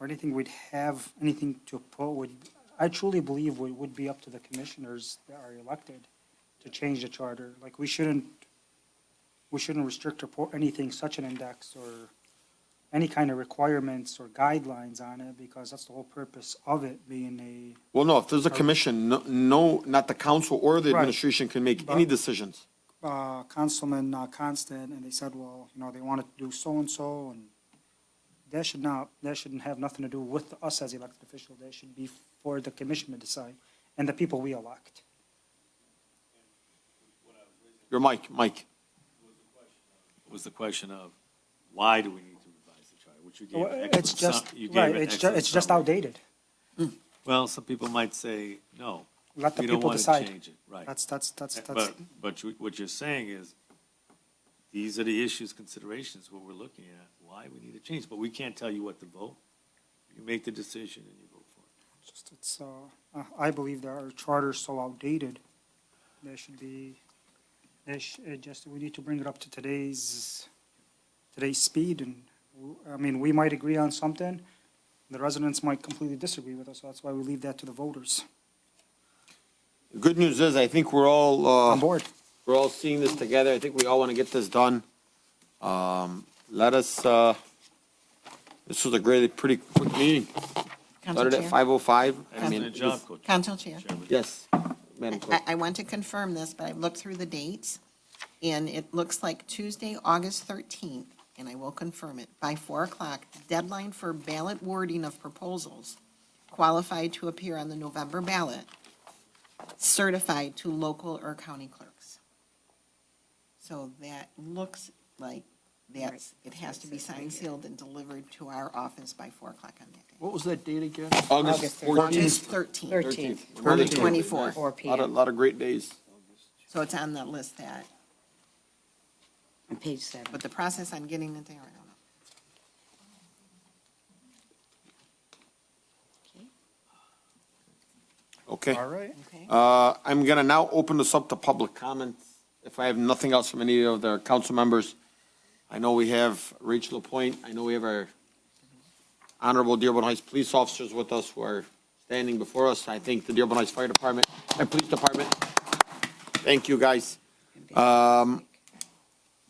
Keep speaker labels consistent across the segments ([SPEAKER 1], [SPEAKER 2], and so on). [SPEAKER 1] or anything we'd have, anything to oppose, would, I truly believe it would be up to the commissioners that are elected to change the charter. Like, we shouldn't, we shouldn't restrict or put anything, such an index or any kind of requirements or guidelines on it, because that's the whole purpose of it being a,
[SPEAKER 2] Well, no, if there's a commission, no- no, not the council or the
[SPEAKER 1] Right.
[SPEAKER 2] administration can make any
[SPEAKER 1] But-
[SPEAKER 2] decisions.
[SPEAKER 1] uh, Councilman uh, Constant, and they said, well, you know, they wanted to do so-and-so, and that should not, that shouldn't have nothing to do with us as elected officials. That should be for the commission to decide, and the people we elect.
[SPEAKER 2] Your mic, Mike.
[SPEAKER 3] was the question of, why do we need to revise the charter? Which you gave an excellent.
[SPEAKER 1] It's just,
[SPEAKER 3] sum- you gave
[SPEAKER 1] right,
[SPEAKER 3] an
[SPEAKER 1] it's just,
[SPEAKER 3] excellent
[SPEAKER 1] it's just
[SPEAKER 3] summary.
[SPEAKER 1] outdated.
[SPEAKER 3] Well, some people might say, no.
[SPEAKER 1] Let the
[SPEAKER 3] we don't
[SPEAKER 1] people
[SPEAKER 3] wanna
[SPEAKER 1] decide.
[SPEAKER 3] Change it, right. Eh,
[SPEAKER 1] That's, that's, that's, that's,
[SPEAKER 3] But, but you- what you're saying is, these are the issues, considerations, what we're looking at, why we need to change, but we can't tell you what to vote. You make the decision and you vote for it.
[SPEAKER 1] just, it's, uh, uh, I believe that our charter's so outdated, there should be, there sh it just, we need to bring it up to today's, today's speed, and, w- I mean, we might agree on something, the residents might completely disagree with us, so that's why we leave that to the voters
[SPEAKER 2] The Good news is, I think we're all,
[SPEAKER 1] on
[SPEAKER 2] uh,
[SPEAKER 1] board.
[SPEAKER 2] we're all seeing this together. I think we all want to get this done. Um, let us, uh, this was a great, pretty quick meeting.
[SPEAKER 4] Council
[SPEAKER 2] Started at
[SPEAKER 4] Chair.
[SPEAKER 2] five oh five. I mean,
[SPEAKER 3] Excellent job, Coach.
[SPEAKER 4] Council Chair.
[SPEAKER 3] Chairman.
[SPEAKER 2] Yes, Madam Clerk.
[SPEAKER 4] I, I want to confirm this, but I've looked through the dates, and it looks like Tuesday, August 13th, and I will confirm it, by 4 o'clock, deadline for ballot wording of proposals qualified to appear on the November ballot, certified to local or county clerks. So that looks like that's, it has to be signed, sealed, and delivered to our office by 4 o'clock on that day.
[SPEAKER 5] What was that date again?
[SPEAKER 2] August
[SPEAKER 4] August
[SPEAKER 2] fourteenth.
[SPEAKER 4] 13th,
[SPEAKER 6] 13th,
[SPEAKER 4] 24.
[SPEAKER 6] 4
[SPEAKER 2] Lot of,
[SPEAKER 6] PM,
[SPEAKER 2] lot of great days.
[SPEAKER 4] So it's on the list that,
[SPEAKER 6] on page 7.
[SPEAKER 4] but the process on getting it there, I don't know.
[SPEAKER 2] Okay.
[SPEAKER 5] right.
[SPEAKER 4] Okay.
[SPEAKER 2] Uh, I'm gonna now open this up to public comments. If I have nothing else from any of the council members, I know we have Rachel Lapointe, I know we have our honorable Dearborn Heights police officers with us who are standing before us. I think the Dearborn Heights Fire Department and Police Department. Thank you, guys. Um,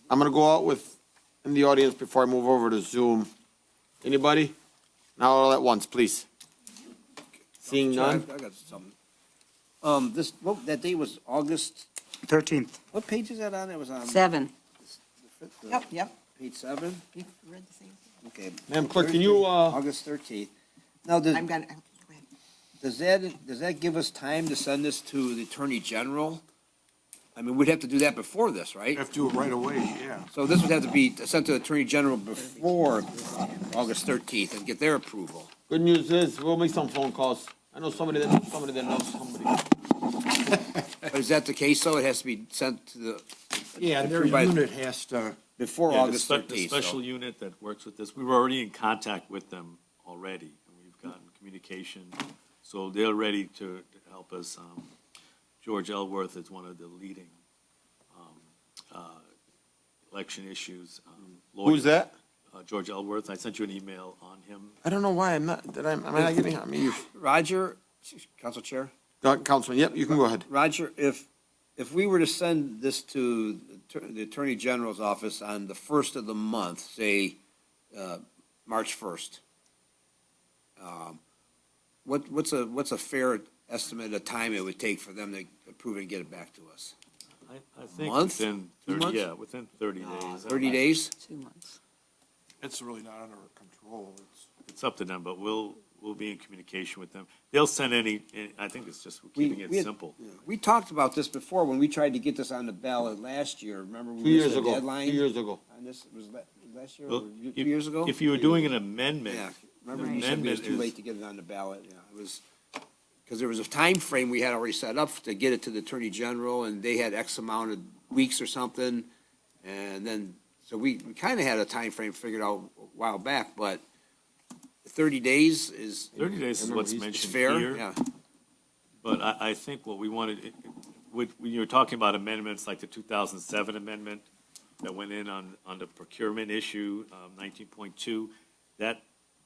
[SPEAKER 2] I'm gonna go out with, in the audience before I move over to Zoom. Anybody? Not all at once, please. Seeing none?
[SPEAKER 7] I got something. Um, this, what, that date was August,
[SPEAKER 1] Thirteenth,
[SPEAKER 7] what page is that on? It was on
[SPEAKER 6] 7.
[SPEAKER 7] the-
[SPEAKER 4] Yep, yep.
[SPEAKER 7] page seven?
[SPEAKER 4] You read the same thing?
[SPEAKER 7] Okay.
[SPEAKER 2] Madam Clerk, can you, uh,
[SPEAKER 7] August thirteenth. Now, does,
[SPEAKER 4] I'm gonna, I'm- go ahead.
[SPEAKER 7] does that, does that give us time to send this to the Attorney General? I mean, we'd have to do that before this, right?
[SPEAKER 8] Have to do it right away, yeah.
[SPEAKER 7] So this would have to be sent to the Attorney General before August thirteenth and get their approval.
[SPEAKER 2] Good news is, we'll make some phone calls. I know somebody that knows somebody that knows somebody.
[SPEAKER 7] But is that the case, though? It has to be sent to the,
[SPEAKER 8] Yeah, and their
[SPEAKER 7] Approved by-
[SPEAKER 8] unit has to,
[SPEAKER 7] before
[SPEAKER 3] Yeah, the
[SPEAKER 7] August
[SPEAKER 3] spe- the
[SPEAKER 7] thirteenth,
[SPEAKER 3] Special
[SPEAKER 7] so.
[SPEAKER 3] unit that works with this, we were already in contact with them already, and we've gotten communication, so they're ready to to help us. Um, George Elworth is one of the leading um, uh, election issues um,
[SPEAKER 7] Mm.
[SPEAKER 3] lawyers.
[SPEAKER 2] Who's that?
[SPEAKER 3] Uh, George Elworth, I sent you an email on him.
[SPEAKER 2] I don't know why I'm not, did I, am I not getting, I mean,
[SPEAKER 7] Roger, Council Chair?
[SPEAKER 2] you, Councilman, yep, you can go ahead.
[SPEAKER 7] Roger, if, if we were to send this to the Attorney General's office on the first of the month, say, uh, March first, um, what, what's a, what's a fair estimate of time it would take for them to approve and get it back to us?
[SPEAKER 3] I- I think
[SPEAKER 7] month?
[SPEAKER 3] within
[SPEAKER 7] Two
[SPEAKER 3] 30,
[SPEAKER 7] months? Ah,
[SPEAKER 3] yeah, within 30 days.
[SPEAKER 7] Thirty days?
[SPEAKER 6] Two months.
[SPEAKER 8] it's really not under our control. It's-
[SPEAKER 3] It's up to them, but we'll, we'll be in communication with them. They'll send any, I think it's just
[SPEAKER 7] We-
[SPEAKER 3] keeping it
[SPEAKER 7] we had-
[SPEAKER 3] simple.
[SPEAKER 7] We talked about this before when we tried to get this on the ballot last year. Remember? we
[SPEAKER 2] Two years
[SPEAKER 7] missed the
[SPEAKER 2] ago,
[SPEAKER 7] deadline
[SPEAKER 2] two years ago.
[SPEAKER 7] On this, was la- was last year, or
[SPEAKER 3] Well,
[SPEAKER 7] two
[SPEAKER 3] if-
[SPEAKER 7] years ago?
[SPEAKER 3] If you were doing an amendment,
[SPEAKER 7] Yeah,
[SPEAKER 3] the
[SPEAKER 7] remember you said it was
[SPEAKER 3] amendment
[SPEAKER 7] too
[SPEAKER 3] is,
[SPEAKER 7] late to get it on the ballot, yeah, it was, because there was a time frame we had already set up to get it to the Attorney General, and they had X amount of weeks or something, and then, so we, we kind of had a time frame figured out a while back, but thirty days is.
[SPEAKER 3] 30 days is what's
[SPEAKER 7] It's
[SPEAKER 3] mentioned
[SPEAKER 7] fair,
[SPEAKER 3] here.
[SPEAKER 7] yeah.
[SPEAKER 3] But I, I think what we wanted, it- when when you were talking about amendments, like the 2007 amendment that went in on, on the procurement issue, um, 19.2, that